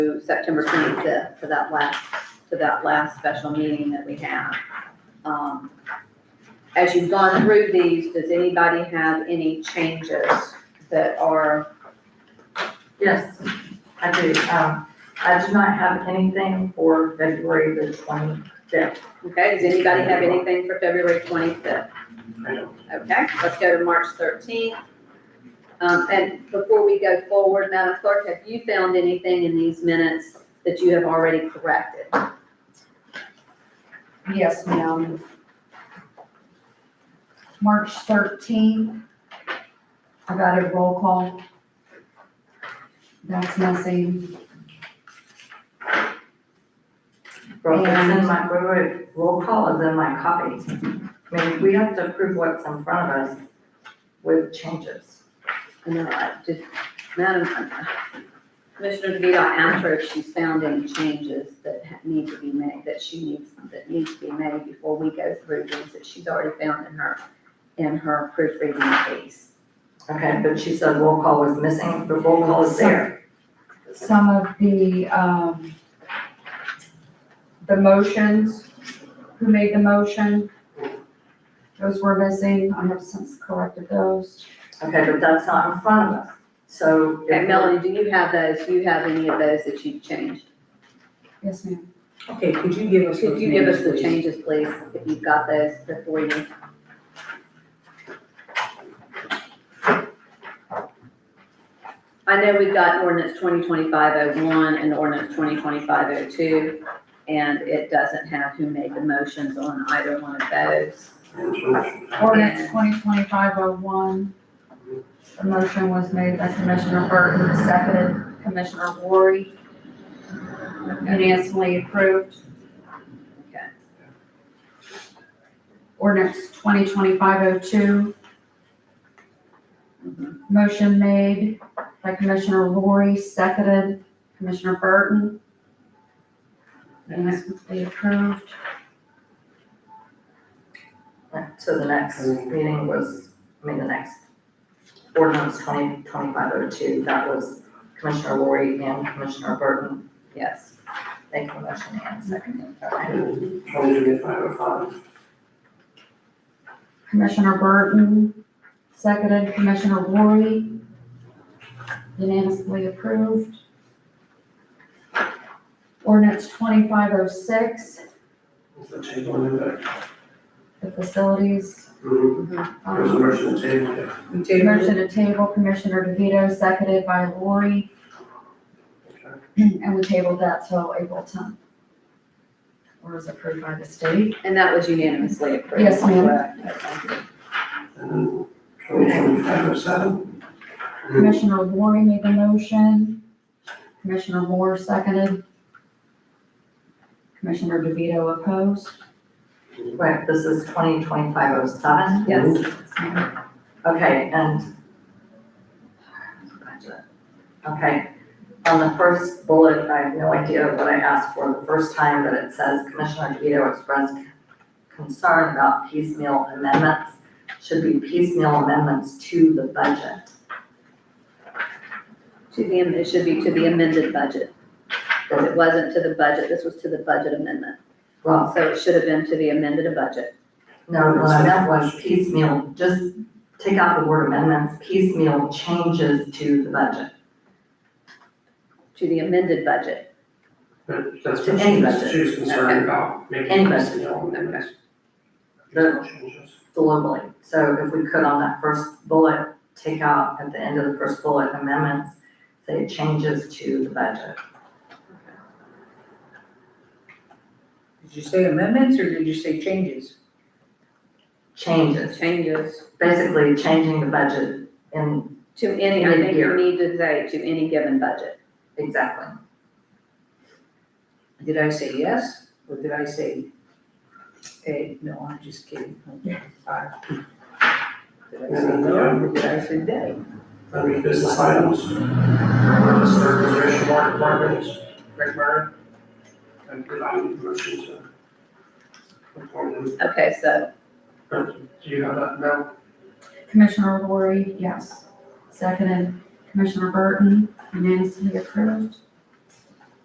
to September twenty-fifth, to that last, to that last special meeting that we have. Um, As you've gone through these, does anybody have any changes that are, Yes, I do. Um, I do not have anything for February the twenty-fifth. okay, does anybody have anything for February twenty-fifth? I Okay, let's go to March thirteenth. Um, and before we go forward, Madam Clerk, have you found anything in these minutes that you have already corrected? Yes, ma'am. March thirteenth, I got a roll call. That's missing. Roll, it's in And- my, wait, wait, wait. roll call is in my copy. I mean, we have to approve what's in front of us with changes. And then I just, Madam, Commissioner DeVito, I asked her if she's found any changes that ha- need to be made, that she needs, that needs to be made before we go through these, that she's already found in her, in her proofreading piece. Okay, but she said roll call was missing, but roll call is there. Some of the, um, the motions, who made the motion? Those were missing. I have since corrected those. Okay, but that's not in front of us. So. if- Okay, Melanie, do you have those, do you have any of those that you've changed? Yes, ma'am. Okay, could you give us Could those you give us names, the please? changes, please, if you've got those before you? I know we've got ordinance twenty twenty-five oh one and ordinance twenty twenty-five oh two, and it doesn't have who made the motions on either one of those. Ordinance twenty twenty-five oh one. The motion was made by Commissioner Burton, seconded Commissioner Ward, unanimously approved. Okay. Ordinance twenty twenty-five oh two. Motion made by Commissioner Lori, seconded Commissioner Burton. Unanimously approved. So the next meeting was, I mean, the next ordinance twenty twenty-five oh two, that was Commissioner Lori and Commissioner Burton. Yes, They can motion and second. Commissioner Burton, seconded Commissioner Lori. Unanimously approved. Ordinance twenty-five oh six, The table in there. the facilities. There's a um, motion to table it. You tabled it? Motion to table, Commissioner DeVito, seconded by Lori, and we tabled that till April tenth. Or is approved by the state. and that was unanimously approved. Yes, ma'am. correct? Okay. And then twenty twenty-five oh seven, Commissioner Lori made the motion. Commissioner Moore seconded. Commissioner DeVito opposed. Right, this is twenty twenty-five oh seven. Yes, Okay, and. Okay, on the first bullet, I have no idea what I asked for the first time, but it says Commissioner DeVito expressed concern about piecemeal amendments. Should be piecemeal amendments to the budget. to the, it should be to the amended budget, because it wasn't to the budget, this was to the budget amendment. Well, So it should have been to the amended budget. No, what I meant was piecemeal, just take out the word amendments, piecemeal changes to the budget. To the amended budget. but that's To what any she's, budget. she's concerned Okay. about, Any making budget. this deal and then that's. The- Changes. Globally, so if we could on that first bullet, take out at the end of the first bullet amendments, say changes to the budget. Did you say amendments or did you say changes? Changes, Changes basically changing the budget in, to any, I think you Mid-year. need to say to any given budget. exactly. Did I say yes or did I say, hey, no, I'm just kidding. Aye. Did I say no or did I say nay? Under business items, ordinance for reservation bar departments, Rick Murray. And did I need a motion to? appoint them? Okay, so, But do you have that now? Commissioner Lori, yes. Seconded Commissioner Burton, unanimously approved.